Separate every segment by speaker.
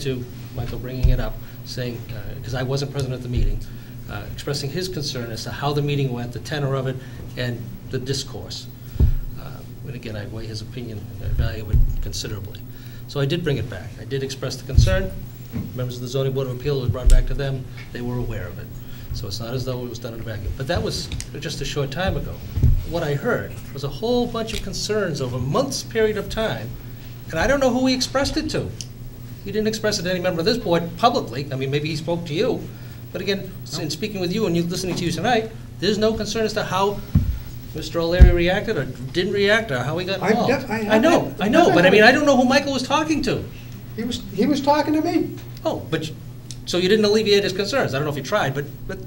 Speaker 1: to Michael bringing it up, saying, because I wasn't present at the meeting, uh, expressing his concern as to how the meeting went, the tenor of it, and the discourse. Uh, And again, I weigh his opinion, I value it considerably. So I did bring it back. I did express the concern. Members of the zoning board of appeal, it was brought back to them. They were aware of it. So it's not as though it was done in a vacuum. But that was just a short time ago. What I heard was a whole bunch of concerns over months' period of time, and I don't know who he expressed it to. He didn't express it to any member of this board publicly. I mean, maybe he spoke to you. But again, in speaking with you and you, listening to you tonight, there's no concern as to how Mr. O'Leary reacted or didn't react or how he got
Speaker 2: I've
Speaker 1: involved.
Speaker 2: def- I-
Speaker 1: I know, I know, but I mean, I don't know who Michael was talking to.
Speaker 2: He was, he was talking to me.
Speaker 1: Oh, but, you- so you didn't alleviate his concerns? I don't know if you tried, but, but,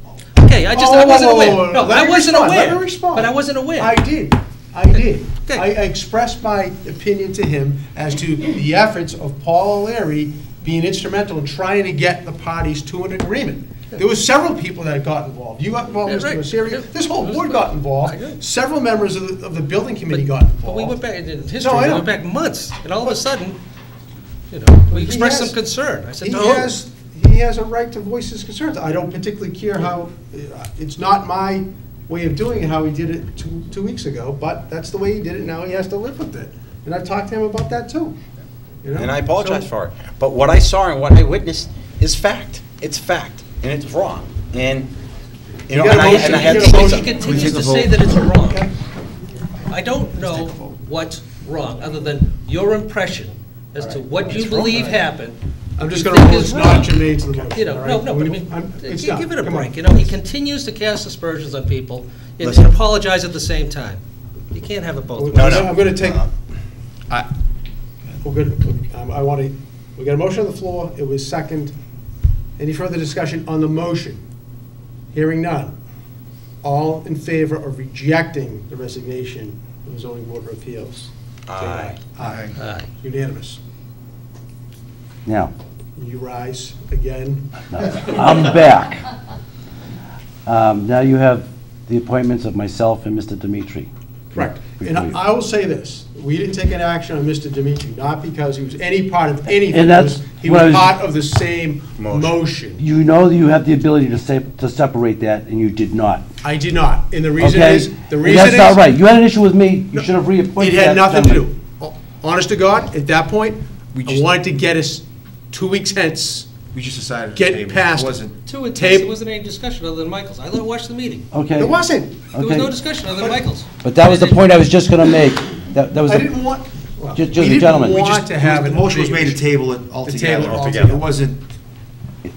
Speaker 1: okay, I just, I
Speaker 2: Oh,
Speaker 1: wasn't
Speaker 2: whoa, whoa,
Speaker 1: aware.
Speaker 2: whoa, whoa.
Speaker 1: No,
Speaker 2: Let
Speaker 1: I
Speaker 2: me
Speaker 1: wasn't
Speaker 2: respond,
Speaker 1: aware.
Speaker 2: Let me respond.
Speaker 1: But I wasn't aware.
Speaker 2: I did, I did.
Speaker 1: Okay.
Speaker 2: I I expressed my opinion to him as to the efforts of Paul O'Leary being instrumental in trying to get the parties to an agreement. There were several people that got involved. You got involved,
Speaker 1: Yeah,
Speaker 2: Mr.
Speaker 1: right. Yeah.
Speaker 2: Messeri, this whole board got
Speaker 1: I agree.
Speaker 2: involved. Several members of the, of the building committee
Speaker 1: But-
Speaker 2: got involved.
Speaker 1: But we went back, in history,
Speaker 2: No, I
Speaker 1: we
Speaker 2: know.
Speaker 1: went back months, and all of a sudden, you know, we
Speaker 2: He
Speaker 1: expressed some
Speaker 2: has-
Speaker 1: concern. I said,
Speaker 2: He
Speaker 1: no.
Speaker 2: has, he has a right to voice his concerns. I don't particularly care how, uh, it's not my way of doing it, how he did it two, two weeks ago, but that's the way he did it, now he has to live with it. And I've talked to him about that too. you know?
Speaker 3: and I apologize
Speaker 2: So-
Speaker 3: for it. But what I saw and what I witnessed is fact. It's fact, and it's wrong. And, you know,
Speaker 2: got a
Speaker 3: and I,
Speaker 2: motion,
Speaker 3: and I
Speaker 2: you
Speaker 3: had
Speaker 2: got
Speaker 3: to
Speaker 2: a
Speaker 3: say
Speaker 2: motion.
Speaker 1: He
Speaker 3: something.
Speaker 1: continues to say that it's wrong. I don't know what's wrong, other than your impression as to what you believe happened.
Speaker 2: I'm just
Speaker 1: you
Speaker 2: gonna
Speaker 1: think
Speaker 2: rule
Speaker 1: is
Speaker 2: it's not
Speaker 1: wrong.
Speaker 2: germane to the motion,
Speaker 1: You know,
Speaker 2: all
Speaker 1: no,
Speaker 2: right?
Speaker 1: no, but I
Speaker 2: We-
Speaker 1: mean, uh,
Speaker 2: I'm- it's
Speaker 1: gi-
Speaker 2: done.
Speaker 1: give it a
Speaker 2: Come on.
Speaker 1: break, you know, he continues to cast aspersions on people and-
Speaker 3: Listen.
Speaker 1: and apologize at the same time. You can't have it both ways.
Speaker 3: No, no.
Speaker 2: I'm gonna take,
Speaker 3: I-
Speaker 2: we're good, Um, I wanna, we got a motion on the floor, it was second. Any further discussion on the motion? Hearing none. All in favor of rejecting the resignation of the zoning board of appeals? Say
Speaker 3: Aye.
Speaker 2: Aye.
Speaker 1: Aye.
Speaker 2: Unanimous.
Speaker 4: Now,
Speaker 2: You rise again.
Speaker 4: I'm back. Um, Now you have the appointments of myself and Mr. Dimitri.
Speaker 2: Correct. And
Speaker 4: Before you-
Speaker 2: I will say this, we didn't take an action on Mr. Dimitri, not because he was any part of anything.
Speaker 4: And that's
Speaker 2: He
Speaker 4: what I
Speaker 2: was
Speaker 4: was-
Speaker 2: part of the same
Speaker 3: Motion.
Speaker 2: motion.
Speaker 4: You know that you have the ability to sep- to separate that, and you did not.
Speaker 2: I did not. And the reason
Speaker 4: Okay?
Speaker 2: is, the
Speaker 4: And
Speaker 2: reason is.
Speaker 4: That's not right. You had an issue with me. You should have
Speaker 2: It
Speaker 4: reappointed that
Speaker 2: had nothing to
Speaker 4: gentleman.
Speaker 2: do. Honest to God, at that point, I wanted to get us two weeks hence,
Speaker 5: We just decided to
Speaker 2: get
Speaker 5: table. it.
Speaker 2: past.
Speaker 5: It wasn't,
Speaker 1: Two, it's-
Speaker 2: Tape-
Speaker 1: there wasn't any discussion other than Michael's. I watched the meeting.
Speaker 4: Okay.
Speaker 2: It wasn't.
Speaker 1: There was no
Speaker 4: Okay.
Speaker 1: discussion other than Michael's.
Speaker 4: But that was the point I was just going to make. That that was,
Speaker 2: I
Speaker 4: the-
Speaker 2: didn't want, well, we
Speaker 4: Ju- just a
Speaker 2: didn't
Speaker 4: gentleman. We
Speaker 2: want
Speaker 5: just,
Speaker 2: to have.
Speaker 5: the
Speaker 2: an
Speaker 5: motion was made to
Speaker 2: agreement.
Speaker 5: table it
Speaker 2: table
Speaker 5: altogether.
Speaker 2: it altogether.
Speaker 5: It wasn't,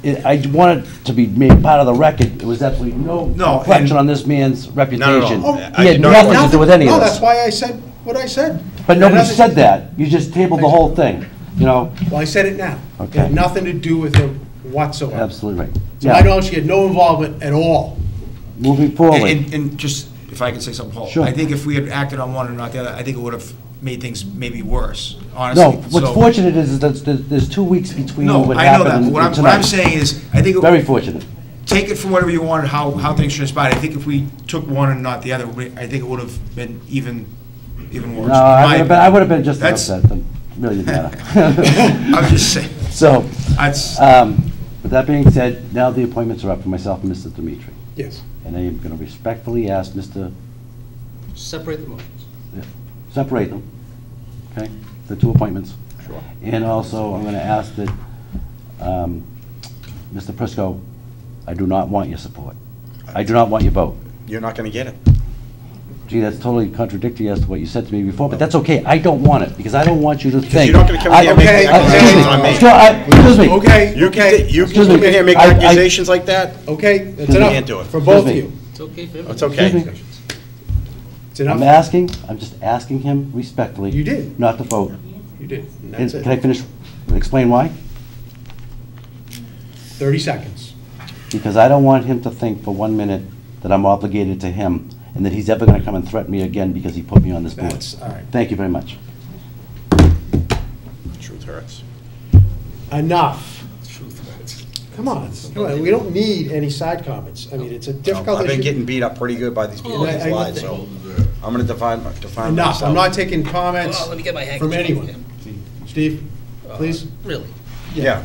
Speaker 4: it- I wanted to be made part of the record. There was absolutely no
Speaker 5: No,
Speaker 4: reflection
Speaker 5: and-
Speaker 4: on this man's reputation.
Speaker 5: Oh,
Speaker 4: He
Speaker 3: I
Speaker 4: had
Speaker 3: did not-
Speaker 4: nothing to do with any of
Speaker 2: No,
Speaker 4: this.
Speaker 2: that's why I said what I said.
Speaker 4: But
Speaker 2: It
Speaker 4: nobody
Speaker 2: had nothing-
Speaker 4: said that. You just tabled the whole thing, you know?
Speaker 2: Well, I said it now. It
Speaker 4: Okay.
Speaker 2: had nothing to do with him whatsoever.
Speaker 4: Absolutely right.
Speaker 2: To my
Speaker 4: Yeah,
Speaker 2: knowledge, he had no involvement at all.
Speaker 4: moving
Speaker 5: and,
Speaker 4: forward.
Speaker 5: and- and just, if I could say something, Paul.
Speaker 4: Sure.
Speaker 5: I think if we had acted on one and not the other, I think it would have made things maybe worse, honestly.
Speaker 4: No, what's
Speaker 5: So-
Speaker 4: fortunate is that there's- there's two weeks between
Speaker 5: No,
Speaker 4: what
Speaker 5: I know that,
Speaker 4: happened
Speaker 5: but
Speaker 4: and
Speaker 5: what I'm,
Speaker 4: and
Speaker 5: what I'm
Speaker 4: tonight.
Speaker 5: saying is, I think,
Speaker 4: Very
Speaker 5: it-
Speaker 4: fortunate.
Speaker 5: take it for whatever you wanted, how, how things transpired. I think if we took one and not the other, we- I think it would have been even, even worse.
Speaker 4: No, I
Speaker 5: My
Speaker 4: would have been, I
Speaker 5: opinion.
Speaker 4: would have been just as
Speaker 5: That's-
Speaker 4: upset, then. really didn't matter.
Speaker 5: I'm just saying,
Speaker 4: So,
Speaker 5: that's,
Speaker 4: um, with that being said, now the appointments are up for myself and Mr. Dimitri.
Speaker 2: Yes.
Speaker 4: And I am going to respectfully ask Mr.,
Speaker 1: Separate the motions.
Speaker 4: separate them, okay, the two appointments. And also, I'm going to ask that, um, Mr. Prisco, I do not want your support. I do not want your vote.
Speaker 3: You're not going to get it.
Speaker 4: Gee, that's totally contradictory as to what you said to me before, but that's okay. I don't want it, because I don't want you to think.
Speaker 3: you're not gonna come
Speaker 4: I-
Speaker 3: here and make
Speaker 4: Okay, uh,
Speaker 3: accusations
Speaker 4: excuse me,
Speaker 3: on me.
Speaker 4: excuse- I- Excuse
Speaker 2: Okay,
Speaker 4: me.
Speaker 3: You
Speaker 2: okay,
Speaker 3: can, you can
Speaker 4: Excuse me.
Speaker 3: come here and make
Speaker 4: I- I-
Speaker 3: accusations like that?
Speaker 2: okay, that's
Speaker 4: You
Speaker 2: enough.
Speaker 3: can't do it.
Speaker 2: For both of
Speaker 4: Excuse
Speaker 2: you.
Speaker 4: me.
Speaker 1: It's okay for
Speaker 3: It's
Speaker 1: everyone.
Speaker 3: okay.
Speaker 2: It's
Speaker 4: I'm
Speaker 2: enough.
Speaker 4: asking, I'm just asking him respectfully.
Speaker 2: You did.
Speaker 4: Not to vote.
Speaker 2: You did. And
Speaker 4: And
Speaker 2: That's
Speaker 4: Can I
Speaker 2: it.
Speaker 4: finish, explain why?
Speaker 2: 30 seconds.
Speaker 4: Because I don't want him to think for one minute that I'm obligated to him, and that he's ever going to come and threaten me again because he put me on this board.
Speaker 2: That's, all right.
Speaker 4: Thank you very much.
Speaker 3: Truth hurts.
Speaker 2: Enough. Come on, come on, we don't need any side comments. I mean, it's a difficult
Speaker 3: I've
Speaker 2: issue.
Speaker 3: been getting beat up pretty good by these people
Speaker 2: I-
Speaker 3: that
Speaker 2: I-
Speaker 3: lied, so I'm going to define, my- define myself.
Speaker 2: Enough, I'm not taking comments
Speaker 1: Well, let me get my handkerchief.
Speaker 2: from anyone. Steve, please?
Speaker 1: Really?
Speaker 3: Yeah.